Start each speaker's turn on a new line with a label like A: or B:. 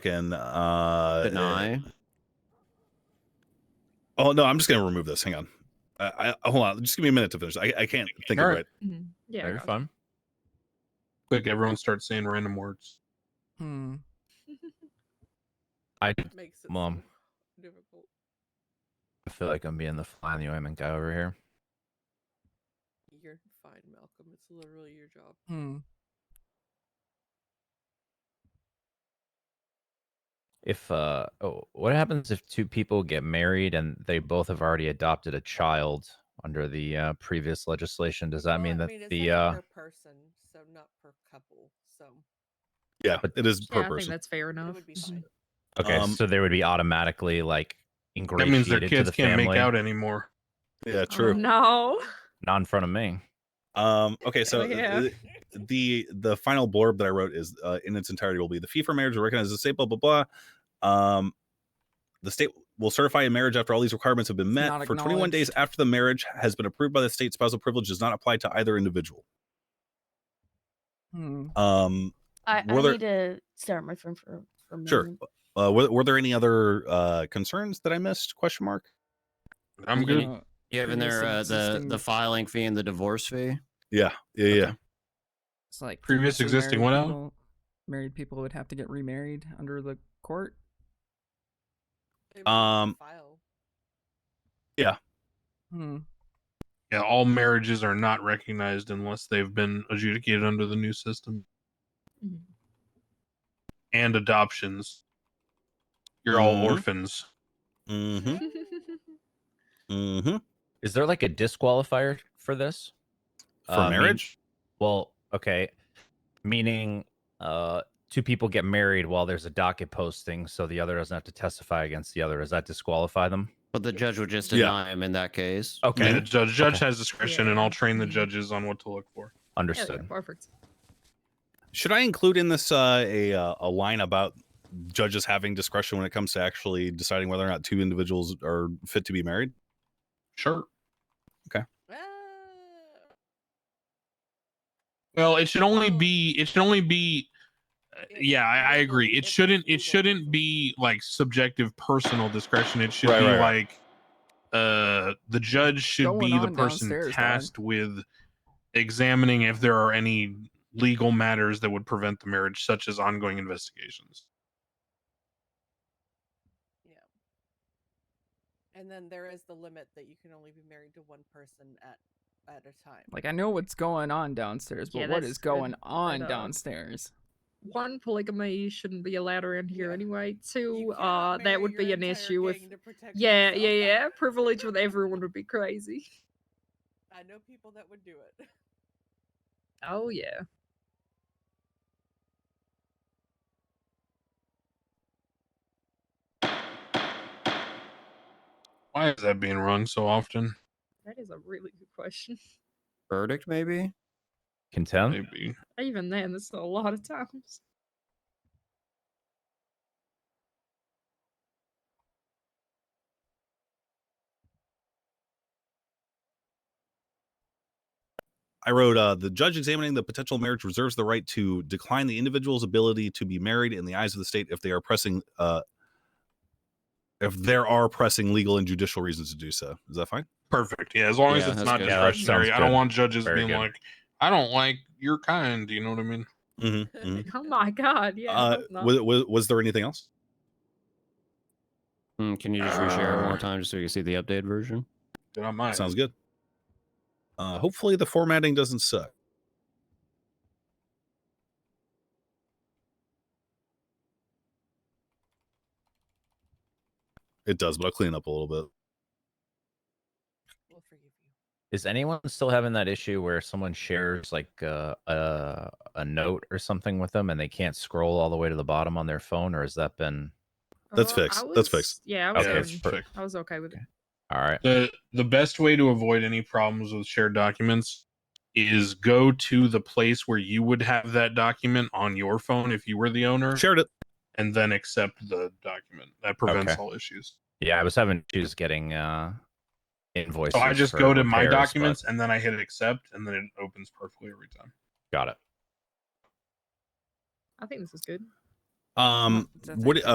A: fucking uh
B: Deny.
A: Oh no, I'm just gonna remove this. Hang on. I, I hold on. Just give me a minute to finish. I, I can't think
C: All
A: of
C: right.
A: it.
D: Mhm. Yeah.
C: That'd be
D: go.
C: fun.
E: Quick, everyone starts saying random words.
C: Hmm. I
F: Makes it so
C: Mom.
F: difficult.
C: feel like I'm being the fly in the ointment guy over here.
F: You're fine, Malcolm. It's literally your job.
C: Hmm. If uh oh, what happens if two people get married and they both have already adopted a child under the uh, previous legislation? Does that
F: Well,
C: mean that
F: it's
C: the
F: only
C: uh
F: per person, so not per couple, so
A: Yeah,
C: But-
A: it is
D: Yeah,
A: per
D: I think
A: person. Mm-hmm.
D: that's fair
F: it
D: enough.
F: would be
D: Mhm.
F: fine.
C: okay,
A: um,
C: so they would be automatically like
E: That
C: ingratiated
E: means their
C: to
E: kids
C: the
E: can't
C: family,
E: make out anymore.
A: Yeah,
D: Oh,
A: true.
D: no.
C: not in front of me.
A: Um, okay, so
D: Oh, yeah.
A: th- the the final blurb that I wrote is uh, in its entirety will be the fee for marriage will recognize the state, blah blah blah. Um, the state will certify a marriage after all these requirements have been met
G: not
A: for 21 days after the marriage has been approved by the state. Spousal privilege does not apply to either individual.
G: Hmm.
A: Um,
H: I, I
A: Were there-
H: need to stare at my phone for, for a
A: Sure.
H: moment.
A: uh, were, were there any other uh, concerns that I missed? Question mark.
E: I'm good.
G: Uh,
I: You have in
G: Previous
I: there
G: and
I: uh, the the
G: existing-
I: filing fee and the divorce fee.
A: Yeah, yeah, yeah.
G: it's like
E: Previous
G: previously
E: existing,
G: married
E: what else?
G: people- Married people would have to get remarried under the court.
F: They might
A: Um,
F: have to file.
G: Hmm.
E: Yeah, all marriages are not recognized unless they've been adjudicated under the new system
I: Mm-hmm.
D: Mhm.
E: and adoptions. You're all
A: Mhm.
E: orphans.
A: Mm-hmm. Mm-hmm.
C: Is there like a disqualifier for this?
A: For
C: Uh, mean-
A: marriage?
C: well, okay. Meaning uh two people get married while there's a docket posting, so the other doesn't have to testify against the other. Does that disqualify them?
I: But the judge would just
A: Yeah.
I: deny him in that case.
E: I mean,
C: Okay.
E: the judge, judge
C: Okay.
E: has discretion, and
D: Yeah.
E: I'll train the judges on what to look for.
D: Yeah, yeah,
C: Understood.
D: perfect.
A: Should I include in this uh, a uh, a line about judges having discretion when it comes to actually deciding whether or not two individuals are fit to be married?
E: Sure.
F: Ah,
E: Well, it should only
F: Well-
E: be. It should only be. uh,
F: It's
E: Yeah, I, I
F: legal-
E: agree. It
F: it's
E: shouldn't.
F: legal.
E: It shouldn't be like subjective, personal discretion. It should
A: Right,
E: be
A: right, right.
E: like, uh, the judge should
G: Going
E: be the
G: on
E: person
G: downstairs, dog.
E: tasked with examining if there are any legal matters that would prevent the marriage, such as ongoing investigations.
F: And then there is the limit that you can only be married to one person at at a time.
G: Like I know what's going on downstairs, but
D: Yeah,
G: what
D: that's
G: is going
D: good.
G: on
D: dog.
G: downstairs?
D: One polygamy shouldn't be allowed around here
F: Yeah.
D: anyway.
F: You
D: Two,
F: cannot
D: uh,
F: marry
D: that would
F: your
D: be an
F: entire
D: issue with.
F: gang to protect
D: Yeah, yeah,
F: yourself.
D: yeah. Privilege with everyone would be crazy.
F: I know people that would do it.
D: Oh yeah.
E: Why is that being rung so often?
D: That is a really good question.
I: Verdict maybe.
C: Contempt?
E: Maybe.
D: Even then, that's a lot of times.
A: I wrote uh, the judge examining the potential marriage reserves the right to decline the individual's ability to be married in the eyes of the state if they are pressing uh, if there are pressing legal and judicial reasons to do so. Is that fine?
E: Perfect. Yeah, as long as
I: Yeah,
E: it's
I: that's
E: not
I: good.
C: Yeah, that
E: discretionary.
C: sounds
E: I don't
C: good.
E: want judges
C: Very
E: being
C: good.
E: like, I don't like your kind. You know what I mean?
A: hmm
D: Oh my god. Yeah.
A: uh,
D: hope not.
A: was, was, was there anything else?
I: Mm, can you just reshare it one more time just so you can see the updated version?
E: Did I mind?
A: Sounds good. Uh, hopefully the formatting doesn't suck. It does, but I'll clean up a little bit.
F: We'll forgive you.
C: Is anyone still having that issue where someone shares like uh, a a note or something with them and they can't scroll all the way to the bottom on their phone, or has that been
A: That's
D: Uh,
A: fixed.
D: I
A: That's
D: was-
A: fixed.
D: Yeah, I was,
E: Okay.
D: okay.
E: perfect.
D: I was okay with it.
C: all right?
E: The the best way to avoid any problems with shared documents is go to the place where you would have that document on your phone if you were the owner
A: Shared it.
E: and then accept the document. That prevents
C: Okay.
E: all issues.
C: Yeah, I was having issues getting uh invoices.
E: So Oh, I just
C: for
E: go to my
C: repairs, but-
E: documents and then I hit accept and then it opens perfectly every time.
C: Got it.
D: I think this is good.
J: Um,
A: That's
J: what
A: actually-